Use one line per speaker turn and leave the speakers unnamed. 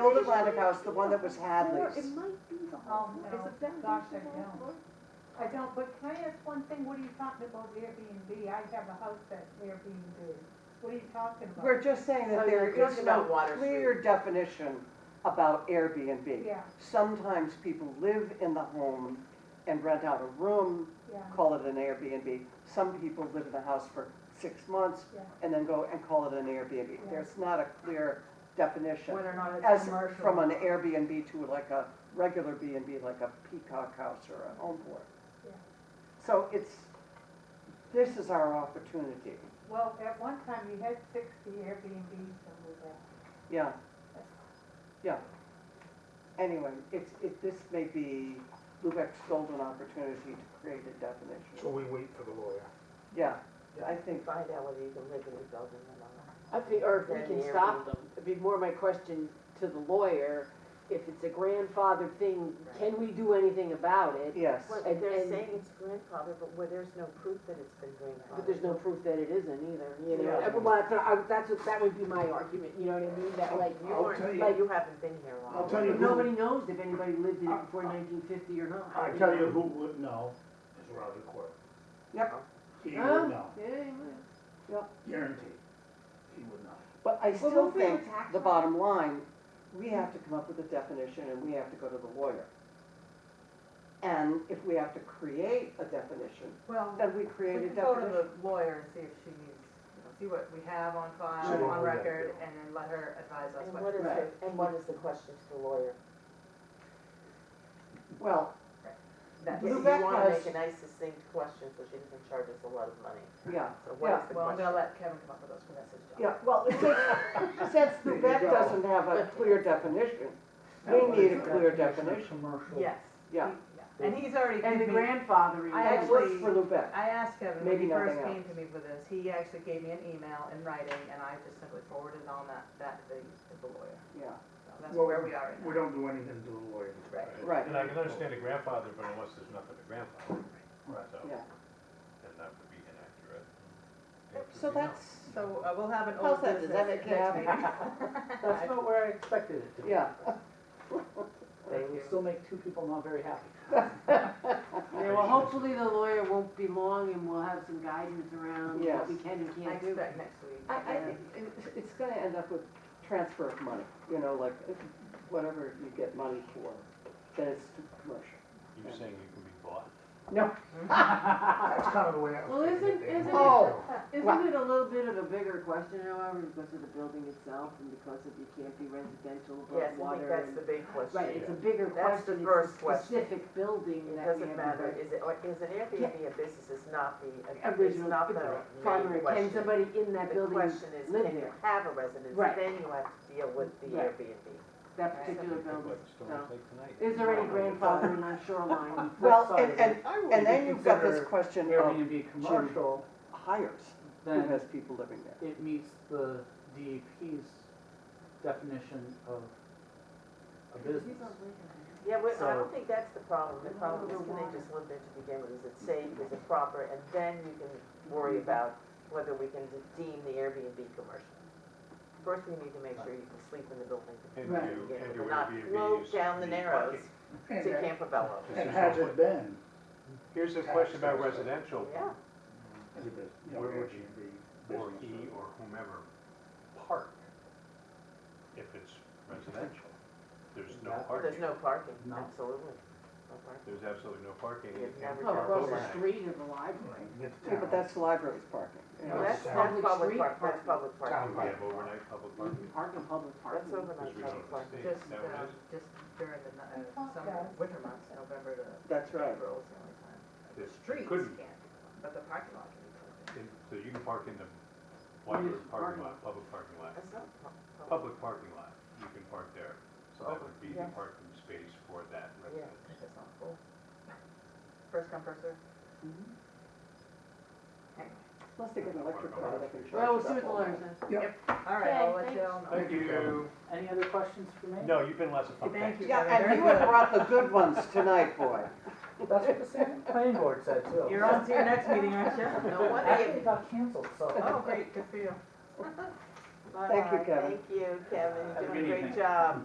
older Braddock house, the one that was Hadley's.
It might be the
Oh,
home.
no, gosh, I don't. I don't, but can I ask one thing? What are you talking about Airbnb? I have a house that's Airbnb. What are you talking about?
We're just saying that
So
there
Oh, you're
is
talking
no
about Water Street.
clear definition about Airbnb.
Yeah,
Sometimes people live in the home and rent out a room,
yeah,
call it an Airbnb. Some people live in the house for six months
yeah.
and then go and call it an Airbnb. There's not a clear definition.
Whether or not it's
As
commercial.
from an Airbnb to like a regular B and B, like a Peacock House or a Home Board.
Yeah.
So it's, this is our opportunity,
Well, at one time you had sixty Airbnbs over there.
yeah, yeah. Anyway, it's, it, this may be Lubeck's golden opportunity to create a
So
definition.
we wait for the lawyer.
Yeah,
Yeah.
I think,
Find out whether you can live in the building or not.
I think, or if we
Then
can
the
stop,
Airbnb.
it'd be more my question to the lawyer, if it's a grandfather thing, can we do anything about it?
yes,
Well,
And-
they're
and-
saying it's grandfather, but where there's no proof that it's been grandfathered.
But there's no proof that it isn't either, you know?
Yeah.
Well, that's, what I- that's, what- that would be my argument, you know what I mean? That like,
You
I'll
weren't,
tell you-
like, you haven't been here long.
I'll tell you who-
nobody knows if anybody lived in it before nineteen fifty or not.
I tell you who would know is Roger Court.
Yep.
He would
Huh?
know,
Yeah, you might.
guaranteed. He would know.
but I
Well,
still
don't they have
think
tax
the
on it?
bottom line, we have to come up with a definition and we have to go to the lawyer. And if we have to create a definition,
Well,
Then we
we
created
can go to
definition.
the lawyer and see if she needs, you know, see what we have on
Sure.
file,
Yeah,
on
yeah,
record,
yeah.
and then let her advise us
And
what
what
to
is
do.
Right.
the, and what is the question to the lawyer?
Well,
That's-
You
Lubeck
wanna
has-
make a nice succinct question so she doesn't charge us a lot of money.
yeah,
So what is the
Well, I'm gonna
question?
let Kevin come up with those, 'cause that's his job.
yeah, well, it's like, since
There you
Lubec
go.
doesn't have a clear definition, we need a clear definition,
Commercial.
Yes.
yeah.
He- And he's already
And the
given me-
grandfathering.
I
That works for Lubec.
I asked Kevin when
Maybe
he first
nothing
came to me for this, he actually gave me an email in writing, and I just simply forwarded on that, that thing to the lawyer.
yeah,
So that's
Well,
where we are
We
now.
don't do anything to the lawyer.
Right.
right,
And I can understand a grandfather, but unless there's nothing to grandfather,
Right.
so,
yeah.
then that would be inaccurate.
So that's,
So uh, we'll have an
How's
old
that? Does
business
that
next
make you happy?
meeting.
That's
not where I expected it to
yeah.
They would
still
make two people not very happy.
Yeah, well, hopefully the lawyer won't be long and we'll have some guidance around
Yes.
what we can and
I
can't do.
expect next week.
I, I think it- it's gonna end up with transfer of money, you know, like, whatever you get money for, then it's commercial.
You're saying you can be bought?
No,
That's kind of the way I
Well,
was thinking. it.
isn't-
They
isn't
might
it-
go.
Isn't it a little bit of a bigger question, however, because of the building itself and because of you can't be residential
Yes,
above
I think
water
that's the
and.
big question.
Right, it's a bigger
That's the
question,
first
it's a
question.
specific building
It
that we
doesn't
have.
matter, is it, or is an Airbnb a business, it's not the, it's
Original,
not the main
primary,
question.
can somebody in that
The
building
question is,
live
can you
there?
have a residence,
Right.
then you have to deal with the
Right.
Airbnb.
that
Right.
particular building?
Like Stony Lake tonight.
Is there any grandfathering on shoreline?
well, and, and, and then you've got this
consider
question of
Airbnb commercial,
hires, who
then
has people living there.
it meets the DEP's definition of a business.
Yeah, well, I
So-
don't think that's the problem, the problem is can they just live there to begin with, is it safe, is it proper, and then you can worry
Mm-hmm.
about whether we can deem the Airbnb commercial. First, we need to make sure you can sleep in the building to
And
Right.
you,
begin
and
with, and
your
not
Airbnbs
float down the
need
narrows
parking.
to Campobello.
And has it been?
Here's a question about residential,
Yeah,
Is it a- you know,
Where would
Airbnb E
or E
business?
he or whomever park, if it's residential, there's no
There's
parking.
there's no parking,
No.
absolutely, no parking.
There's absolutely no parking.
You've
and-
never
and
Oh, across
overnight.
the street of the library.
Right, with the
Yeah,
town.
but that's the library's parking. you know.
Well, that's,
Public
that's public
street
park, that's
parking.
public
Town
parking.
We have overnight public
You
parking.
can park in public
That's
parking.
overnight
Because we
public
don't have
Mm-hmm. parking.
a state,
Just,
is that what
uh,
it is?
just during the, ni-
I
uh,
thought
summer,
that-
winter months, November to
That's right.
April is the only time.
They- they
Streets
couldn't.
can't, but the parking lot can be parked.
In- So you can park in the library parking lot, public parking lot,
That's not pu- public.
public parking lot, you can park there. So that would be the
Yes.
parking space for that residence.
That's just not cool. First come, first served.
Unless Mm-hmm. they get an electric car, they can charge.
Well, we'll
that
see what the
whole
lawyer
thing.
says.
All right, I'll
Okay,
let you all know.
Thank you, Kevin.
Any other questions for me?
No, you've been lots of fun.
Thank you.
Yeah,
Kevin.
and you
Very
have brought the good ones tonight, boy.
That's what the same planning board said too.
good. You're on to your next meeting, aren't you?
No wonder
Actually,
you
it got canceled, so.
Oh, great, good for you.
Thank you, Kevin.
Thank you, Kevin,
Have a
you're doing
good
a great
evening.
job.